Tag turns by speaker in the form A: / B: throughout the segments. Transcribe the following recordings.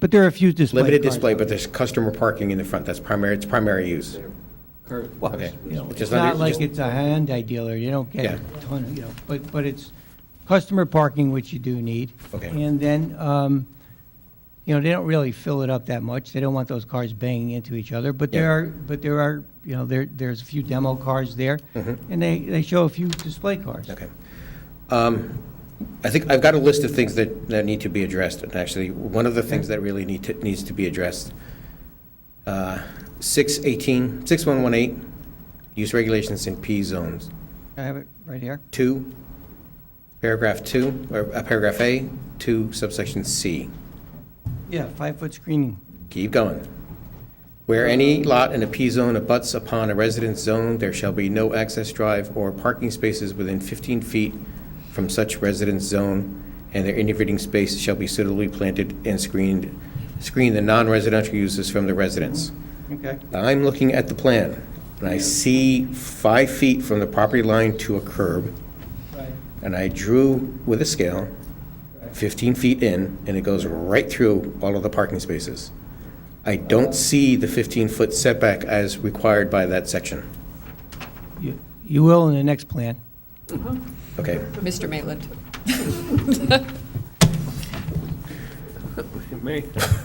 A: But there are a few display
B: Limited
A: cars.
B: display, but there's customer parking in the front, that's primary, it's primary use.
A: Well,
B: Okay.
A: you know,
B: Just
A: It's
B: under-
A: not like
B: just-
A: it's a Hyundai dealer, you don't get a
B: Yeah.
A: ton, of you know, but, but it's customer parking, which you do need.
B: Okay.
A: And then, um, you know, they don't really fill it up that much, they don't want those cars banging into each other, but there
B: Yeah.
A: are, but there are, you know, there, there's a few demo cars there, and they, they show a few display cars.
B: Mm-hmm. Okay. Um, I think I've got a list of things that, that need to be addressed, and actually, one of the things that really need to, needs to be addressed. uh, 618, 6118, use regulations in P zones.
A: I have it right here.
B: Two, paragraph two, or uh, paragraph A, two subsection C.
A: Yeah, five-foot screening.
B: Keep going. Where any lot in a P-zone abuts upon a residence zone, there shall be no access drive or parking spaces within 15 feet from such residence zone, and their intervening space shall be suitably planted and screened, screen the non-residential uses from the residence.
A: Okay.
B: I'm looking at the plan, and I see five feet from the property line to a curb,
A: Right.
B: and I drew with a scale 15 feet in, and it goes right through all of the parking spaces. I don't see the 15-foot setback as required by that section.
A: You, you will in the next plan.
B: Okay,
C: Mr. Maitland.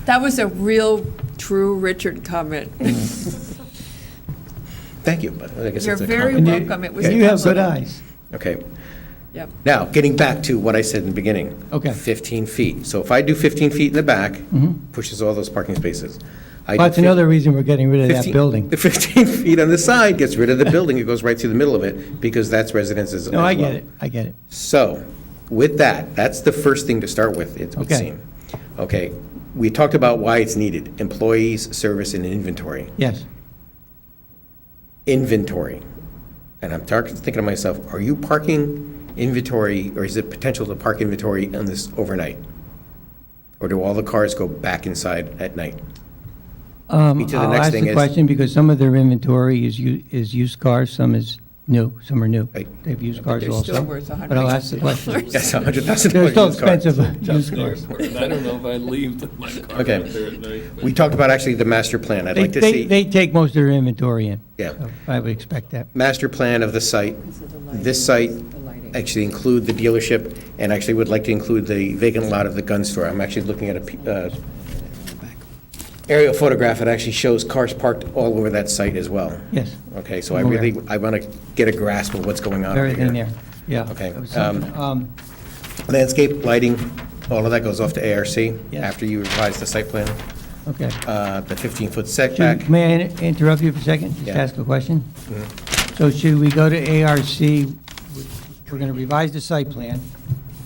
C: That was a real, true Richard comment.
B: thank you, but I guess
C: You're
B: it's a
C: very
B: comment.
C: welcome. It was. a
A: You have good
C: compliment.
A: eyes.
B: Okay,
C: Yep.
B: now, getting back to what I said in the beginning.
A: Okay. Mm-hmm.
B: 15 feet. So if I do 15 feet in the back, pushes all those parking spaces. I do
A: That's
B: 15
A: another reason we're getting rid of that
B: 15
A: building.
B: The 15 feet on the side gets rid of the building, it goes right through the middle of it, because that's residences as
A: No,
B: well.
A: I get it, I get it.
B: So, with that, that's the first thing to start with, it would
A: Okay.
B: seem. Okay, we talked about why it's needed, employees, service, and inventory.
A: Yes.
B: Inventory. And I'm tar- thinking to myself, are you parking inventory, or is it potential to park inventory on this overnight? Or do all the cars go back inside at night?
A: Um,
B: Me too, the
A: I'll
B: next
A: ask
B: thing
A: the
B: is-
A: question because some of their inventory is u- is used cars, some is new, some are new.
B: Right.
A: They've used cars
C: They're
A: also.
C: still worth a
A: But I'll ask the question.
B: That's a hundred thousand
A: They're
B: dollars.
A: still expensive used cars.
D: I don't know if I leave my car out
B: Okay.
D: there at night. but-
B: We talked about actually the master plan. I'd
A: They,
B: like to
A: they,
B: see
A: they take most of their inventory in.
B: Yeah.
A: So I would expect that.
B: master plan of the site. This site actually include the dealership and actually would like to include the vacant lot of the gun store. I'm actually looking at a p- uh, aerial photograph that actually shows cars parked all over that site as well.
A: Yes.
B: Okay, so I
A: I'm aware.
B: really, I want to get a grasp of what's going on over
A: Everything
B: here.
A: there, yeah.
B: Okay,
A: It was something, um,
B: Landscape, lighting, all of that goes off to ARC
A: Yes.
B: after you revise the site plan,
A: Um, Okay.
B: uh, the 15-foot
A: Should-
B: setback.
A: May I in- interrupt you for a second? Just
B: Yeah.
A: ask a question? So should we go to ARC, We- we're going to revise the site plan,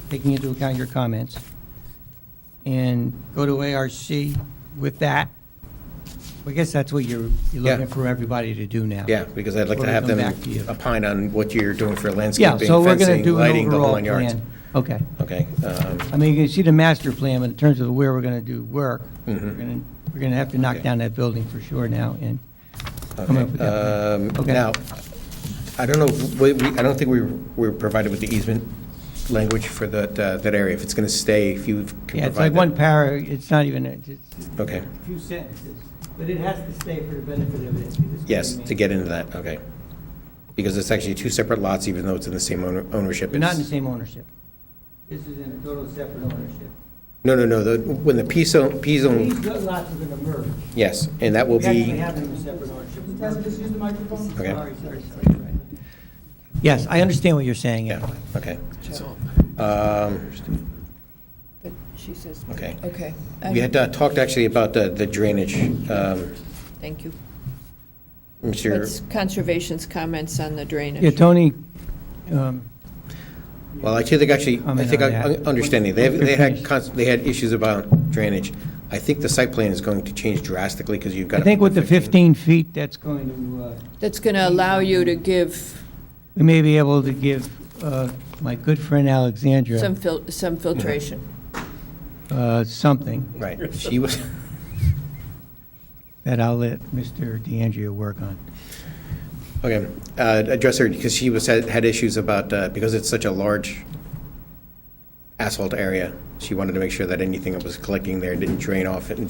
A: taking into account your comments, and go to ARC with that? I guess that's what you're, you're
B: Yeah.
A: looking for everybody to do now.
B: Yeah, because I'd like
A: We're
B: to
A: gonna
B: have
A: come
B: them
A: back to you.
B: opine on what you're doing for
A: Yeah,
B: landscaping,
A: so we're going to
B: fencing,
A: do an
B: lighting, the whole
A: overall
B: nine yards.
A: plan. Okay.
B: Okay, um,
A: I mean, you can see the master plan, but in terms of where we're going to do work, we're going
B: Mhm.
A: to, we're going to have to knock
B: Okay.
A: down that building for sure now, and come up with
B: okay.
A: that.
B: Um,
A: Okay.
B: Now, I don't know, we- we- I don't think we were provided with the easement language for that, uh, that area, if it's going to stay, if you can provide
A: Yeah, it's like
B: that.
A: one para, it's not even, a- it's
B: Okay,
A: a few sentences, but it has to stay for the benefit of it.
B: yes, to get into that, okay. Because it's actually two separate lots, even though it's in the same owner- ownership.
A: We're not in the
B: It's-
A: same ownership. This is in a total separate ownership.
B: No, no, no, the- when the P zone, P
A: These
B: zone,
A: good lots are going to merge.
B: yes, and that will
A: We actually
B: be,
A: have them in separate ownership.
B: Okay.
A: Sorry, sorry, sorry. Yes, I understand what you're saying.
B: yeah,
A: Ed.
B: okay. Um,
C: But she says,
B: Okay.
C: okay.
B: We had uh, talked actually about the the drainage. um,
C: Thank you. That's
B: Mr.,
C: Conservation's comments on the drainage.
A: Yeah, Tony, um,
B: well, I think actually, I
A: Comment
B: think
A: on
B: I
A: that.
B: understanding, they they had,
A: Finish.
B: cons- they had issues about drainage. I think the site plan is going to change drastically because you've got.
A: I think with the 15 feet, that's going to, uh,
C: That's going to allow you to give
A: we may be able to give uh, my good friend Alexandra
C: some fil, some filtration.
A: uh, something.
B: Right, she was,
A: that I'll let Mr. DeAngelo work on.
B: okay, uh, address her because she was, had had issues about, uh, because it's such a large asphalt area. She wanted to make sure that anything that was collecting there didn't drain off and